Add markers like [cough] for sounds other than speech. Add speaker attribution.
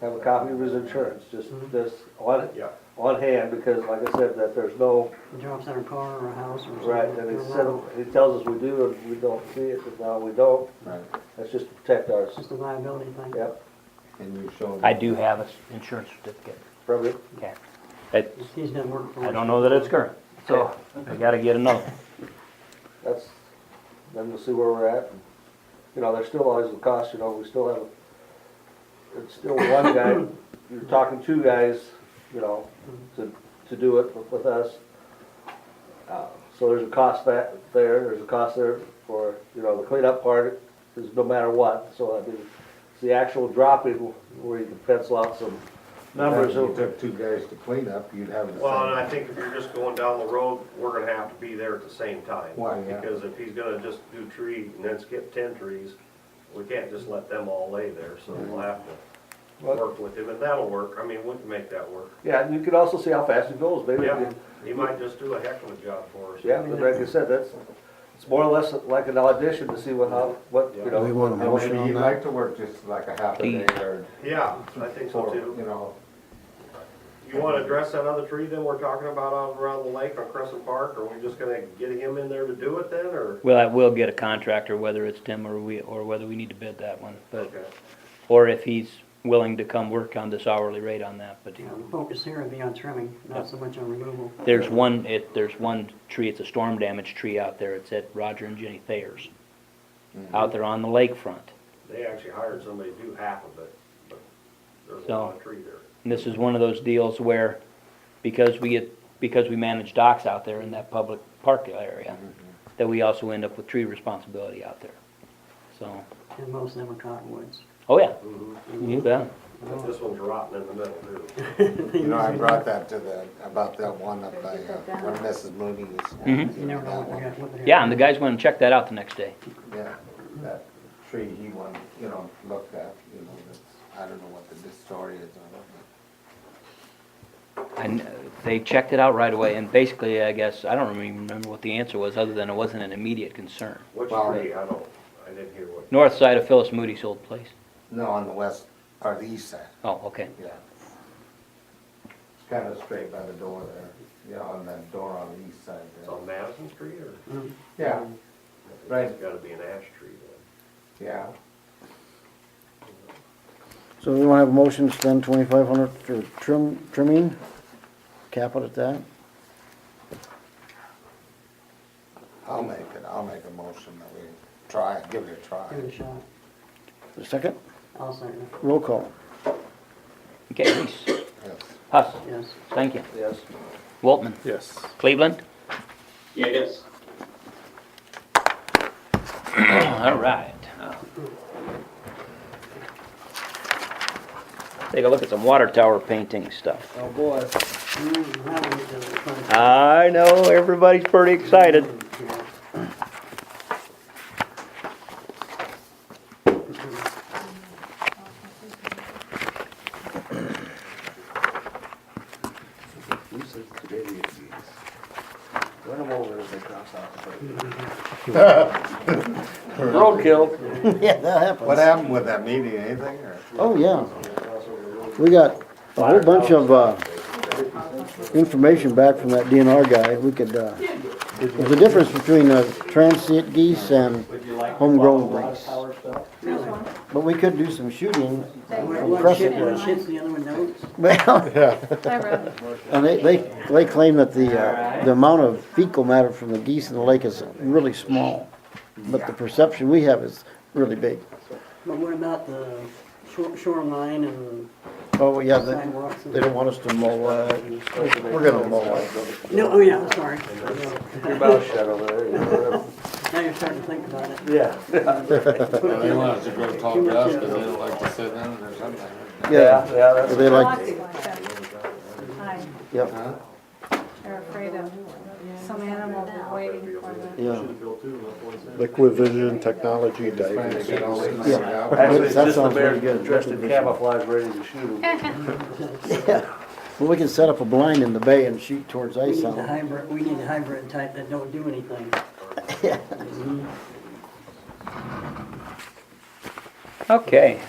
Speaker 1: have a copy of his insurance, just,
Speaker 2: Mhm.
Speaker 1: just on,
Speaker 3: Mm-hmm. Yeah.
Speaker 1: on hand, because like I said, that there's no,
Speaker 2: Jobs on a car or a house or something.
Speaker 1: right, and he
Speaker 2: They're
Speaker 1: said,
Speaker 2: liable.
Speaker 1: he tells us we do, and we don't see it, but now we don't,
Speaker 3: Right,
Speaker 1: that's just to protect ours,
Speaker 2: It's just a liability thing.
Speaker 1: yep,
Speaker 3: and you show.
Speaker 4: I do have an insurance certificate.
Speaker 1: probably,
Speaker 4: Okay. It,
Speaker 2: He's done work for us.
Speaker 4: I don't know that it's current, so I gotta get another. one.
Speaker 1: that's, then we'll see where we're at. and, You know, there's still always the cost, you know, we still have, a- it's still one guy, you're talking two guys, you know, to, to do it with- with us. Uh, So there's a cost that, there, there's a cost there for, you know, the cleanup part is no matter what, so I mean, it's the actual dropping where you can pencil out some numbers.
Speaker 3: If you took two guys to clean up, you'd have the same.
Speaker 5: Well, and I think if you're just going down the road, we're gonna have to be there at the same time.
Speaker 3: Why, yeah.
Speaker 5: Because if he's gonna just do tree and then skip ten trees, we can't just let them all lay there, so we'll have to work with him, and that'll work, I mean, we can make that work.
Speaker 1: Yeah, and you can also see how fast it goes, maybe.
Speaker 5: Yeah, he might just do a heck of a job for us.
Speaker 1: Yeah, but like you said, that's, it's more or less like an audition to see what, how, what, you know.
Speaker 6: We want a
Speaker 3: And
Speaker 6: motion
Speaker 3: Maybe
Speaker 6: on
Speaker 3: you'd
Speaker 6: that?
Speaker 3: like to work just like a half a day or,
Speaker 5: Yeah, I think so
Speaker 3: or,
Speaker 5: too.
Speaker 3: you
Speaker 2: [laughs]
Speaker 3: know,
Speaker 5: You wanna address that other tree then we're talking about out around the lake on Crescent Park, are we just gonna get him in there to do it then, or?
Speaker 4: [laughs] Well, I will get a contractor, whether it's Tim or we, or whether we need to bid that one, but,
Speaker 5: Okay.
Speaker 4: or if he's willing to come work on this hourly rate on that, but
Speaker 2: Yeah, the focus here would be on trimming, not so much on removal.
Speaker 4: there's one, it, there's one tree, it's a storm damaged tree out there, it's at Roger and Jenny Thayer's. Out there on the lakefront,
Speaker 5: They actually hired somebody to do half of it, but there's a
Speaker 4: No.
Speaker 5: lot of tree there.
Speaker 4: and this is one of those deals where, because we get, because we manage docks out there in that public park area, that we also end up with tree responsibility out there, so,
Speaker 2: And most of them are cottonwoods.
Speaker 4: oh yeah,
Speaker 5: Mhm.
Speaker 4: you bet.
Speaker 5: But This one's rotten in the middle too.
Speaker 3: you know, I brought that to the, about that one up by, uh, where Mrs. Mooney is.
Speaker 4: Mhm.
Speaker 2: Mm-hmm. You never know
Speaker 3: That
Speaker 2: what
Speaker 3: one.
Speaker 2: they're gonna, what they're.
Speaker 4: Yeah, and the guys went and checked that out the next day.
Speaker 3: Yeah, that tree he wanted, you know, looked at, you know, that's, I don't know what the story is on it, but.
Speaker 4: And uh, they checked it out right away, and basically, I guess, I don't even remember what the answer was, other than it wasn't an immediate concern.
Speaker 5: Which
Speaker 3: Well,
Speaker 5: tree, I don't, I didn't hear what.
Speaker 4: North side of Phyllis Moody's old place.
Speaker 3: No, on the west, or the east side,
Speaker 4: Oh, okay.
Speaker 3: yeah. It's kind of straight by the door there, yeah, on that door on the east side
Speaker 5: It's
Speaker 3: there.
Speaker 5: on Madison Street or?
Speaker 2: Mm.
Speaker 3: Yeah,
Speaker 5: It's
Speaker 3: Right.
Speaker 5: gotta be an ash tree
Speaker 3: yeah.
Speaker 6: So we wanna have a motion to spend twenty-five hundred for trim, trimming, cap it at that.
Speaker 3: I'll make it, I'll make a motion that we try, it, give it a try.
Speaker 2: Give it a shot.
Speaker 6: A second,
Speaker 2: I'll second it.
Speaker 6: roll call.
Speaker 4: Okay, Reese,
Speaker 3: Yes.
Speaker 4: Huss,
Speaker 2: Yes.
Speaker 4: thank you.
Speaker 1: Yes,
Speaker 4: Waltman,
Speaker 6: Yes.
Speaker 4: Cleveland?
Speaker 7: Yes.
Speaker 4: [clears throat] All right. Take a look at some water tower painting stuff.
Speaker 1: oh boy.
Speaker 2: Mm, that one is a fun-
Speaker 4: I know, everybody's pretty excited.
Speaker 2: Yeah.
Speaker 6: Who says today is
Speaker 1: Run them over as they cross out the road.
Speaker 6: Roadkill. [laughs] Yeah, that happens.
Speaker 3: What happened with that meeting, anything, or?
Speaker 6: Oh, yeah. We got a whole bunch of, uh, information back from that DNR guy. We could, uh, there's a difference between, uh, transient geese and homegrown geese. But we could do some shooting [laughs] from
Speaker 2: One shit,
Speaker 6: crescent
Speaker 2: one
Speaker 6: geese.
Speaker 2: shits, the other one don't.
Speaker 6: Well,
Speaker 8: Hi,
Speaker 6: [laughs]
Speaker 8: Rob.
Speaker 6: and they, they, they claim that the, uh, the amount of fecal matter from the geese in the lake is really small. But the perception we have is really big.
Speaker 2: But what about the shore- shoreline and
Speaker 6: Oh, yeah, they,
Speaker 2: sidewalks? and-
Speaker 6: they don't want us to mow it. We're gonna mow it.
Speaker 2: No, oh yeah, I'm sorry.
Speaker 1: [laughs]
Speaker 2: Yeah.
Speaker 1: Your mouth shut over there. you know,
Speaker 2: Now you're starting to think about it. uh,
Speaker 1: whatever.
Speaker 2: They want us to go talk to us because they don't like
Speaker 1: Yeah, yeah, that's.
Speaker 6: They like,
Speaker 8: Lots of them. Hi,
Speaker 6: yep.
Speaker 8: they're afraid of some animal they're waiting for them.
Speaker 6: Yeah.
Speaker 9: Liquid Vision Technology Diving
Speaker 3: They got all these-
Speaker 1: Actually, it's just
Speaker 6: That
Speaker 1: the
Speaker 6: sounds
Speaker 1: bear
Speaker 6: pretty good.
Speaker 1: dressed in camouflage, ready to shoot them.
Speaker 2: uh,
Speaker 6: Well, we can set up a blind in the bay and shoot towards
Speaker 2: We
Speaker 6: ice
Speaker 2: need
Speaker 6: on
Speaker 2: the
Speaker 6: it.
Speaker 2: hybrid, we need a hybrid type that don't do anything.
Speaker 4: Okay,